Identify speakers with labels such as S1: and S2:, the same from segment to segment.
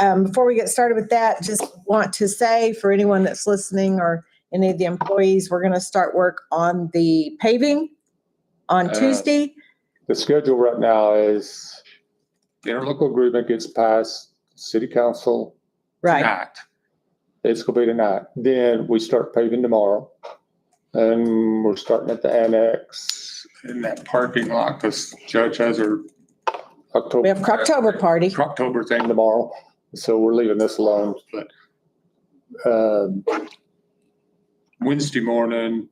S1: um, before we get started with that, just want to say for anyone that's listening or any of the employees, we're going to start work on the paving on
S2: Uh,
S1: Tuesday.
S2: The schedule right now is the interlocal agreement gets passed, city council
S1: Right,
S2: tonight. It's gonna be tonight. Then we start paving tomorrow. And we're starting at the annex in that parking lot because Judge has her
S1: we have
S2: October,
S1: Croctober party.
S2: October thing tomorrow. So we're leaving this alone, but um, Wednesday morning,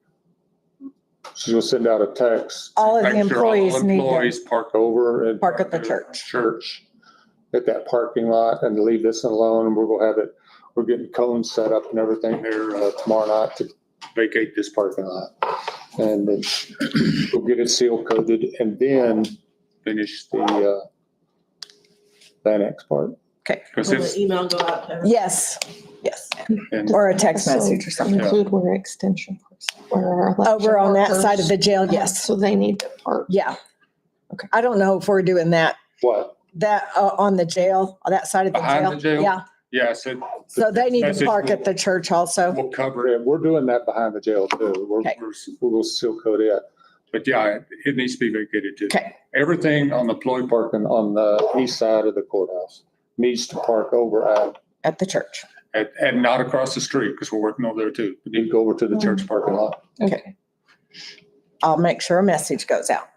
S2: she's gonna send out a text.
S1: All of the
S2: Make sure all
S1: employees need to
S2: Employees park over and.
S1: park at the church.
S2: church at that parking lot and leave this alone. We're gonna have it, we're getting cones set up and everything here uh, tomorrow night to vacate this parking lot. And then we'll get it seal coated and then finish the, uh, the annex part.
S1: Okay.
S2: Cause
S3: Will the
S2: it's,
S3: email go out to everyone?
S1: Yes, yes,
S2: and
S1: or a text
S4: So-
S1: message or something.
S4: Include where extension, person- where our election
S1: Over on that side of
S4: workers-
S1: the jail, yes,
S4: So they need to park.
S1: yeah. I don't know if we're doing that,
S2: what?
S1: that, uh, on the jail, on that side of the jail.
S2: Behind the jail?
S1: Yeah,
S2: Yeah, so
S1: so they need to
S2: Message
S1: park
S2: will-
S1: at the church also.
S2: we'll cover it. We're doing that behind the jail too. We're,
S1: Okay.
S2: we're, we'll seal coat it. But yeah, it- it needs to be vacated too.
S1: Okay,
S2: Everything on the ploy parking on the east side of the courthouse needs to park over at,
S1: at the church.
S2: and, and not across the street because we're working over there too. We need to go over to the church parking lot.
S1: Okay. I'll make sure a message goes out.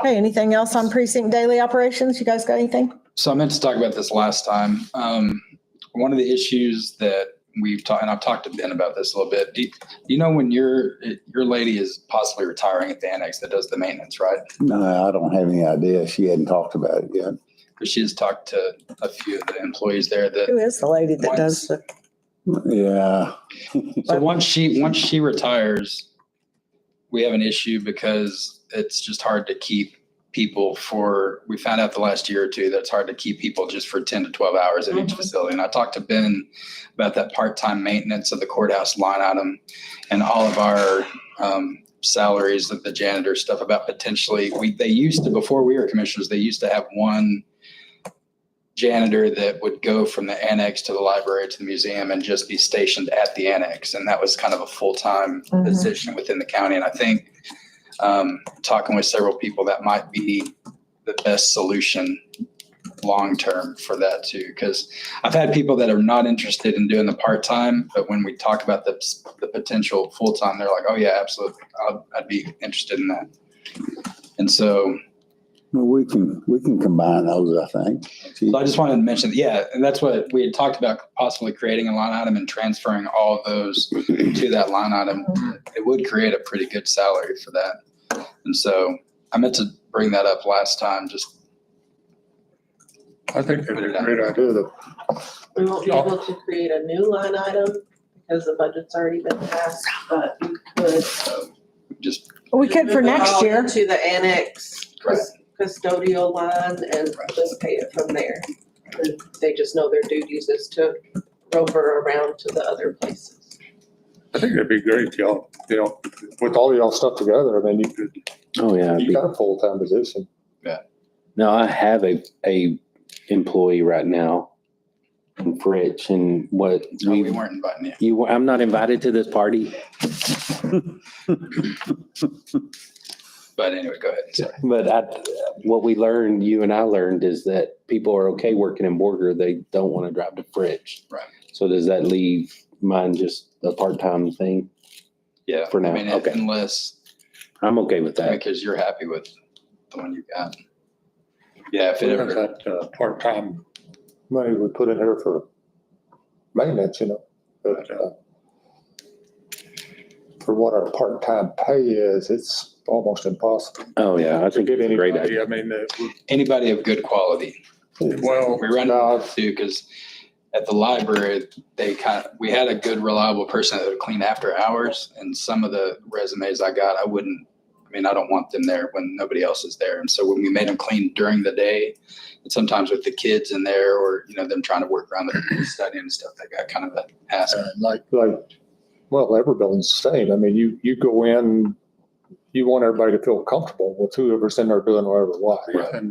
S1: Okay, anything else on precinct daily operations? You guys got anything?
S5: So I meant to talk about this last time. Um, one of the issues that we've talked, and I've talked to Ben about this a little bit. Do you, do you know when your your lady is possibly retiring at the annex that does the maintenance, right?
S6: No, I don't have any idea. She hadn't talked about it yet.
S5: Because she has talked to a few of the employees there that.
S1: Who is the lady that does the,
S6: Yeah.
S5: So once she once she retires, we have an issue because it's just hard to keep people for. We found out the last year or two that it's hard to keep people just for ten to twelve hours at each facility. And I talked to Ben about that part-time maintenance of the courthouse line item and all of our um, salaries of the janitor stuff about potentially we they used to before we were commissioners they used to have one janitor that would go from the annex to the library to the museum and just be stationed at the annex. And that was kind of a full time
S1: Mhm.
S5: position within the county. And I think um, talking with several people, that might be the best solution long term for that too. Because I've had people that are not interested in doing the part time, but when we talk about the, the potential full time, they're like, oh, yeah, absolutely. I'd, I'd be interested in that. And so
S6: Well, We can, we can combine those, I think. She-
S5: So I just wanted to mention, yeah, and that's what we had talked about possibly creating a line item and transferring all those to that line item. It would create a pretty good salary for that. And so I meant to bring that up last time, just
S2: I think that's a great idea. The-
S3: We won't be able to create a new line item because the budget's already been passed, but we could.
S5: uh, just
S1: we could for
S3: move it
S1: next
S3: all
S1: year.
S3: into the annex cus- custodial line and just pay it from there. And They just know their duties is to rover around to the other places.
S2: I think it'd be great, y'all, you know, with all y'all stuff together, I mean, you could,
S7: Oh yeah. it'd
S2: you
S7: be-
S2: got a full-time position.
S7: No, I have a a employee right now in French and what
S5: oh, we
S7: we
S5: weren't inviting you.
S7: you I'm not invited to this party.
S5: But anyway, go ahead. Sorry.
S7: But I, what we learned, you and I learned is that people are okay working in Borger. They don't want to drive to French.
S5: Right.
S7: So does that leave mine just a part-time thing?
S5: Yeah.
S7: For now,
S5: I mean,
S7: okay.
S5: Unless,
S7: I'm okay with that.
S5: because you're happy with the one you got. Yeah, if it ever.
S2: That, uh, part-time money we put in here for maintenance, you know, but, uh, for what our part-time pay is, it's almost impossible.
S7: Oh, yeah, I
S2: to
S7: think
S2: get
S7: it's a great idea.
S2: anybody. I mean, uh,
S5: anybody of good quality.
S2: Well,
S5: we run
S2: no.
S5: into too because at the library they kind of we had a good reliable person that would clean after hours, and some of the resumes I got, I wouldn't. I mean, I don't want them there when nobody else is there, and so when we made them clean during the day, and sometimes with the kids in there, or you know them trying to work around the study and stuff, they got kind of an ask.
S2: uh, like, like, well, every building's the same. I mean, you, you go in, you want everybody to feel comfortable with whoever's in there doing whatever, why.
S5: Right.
S2: And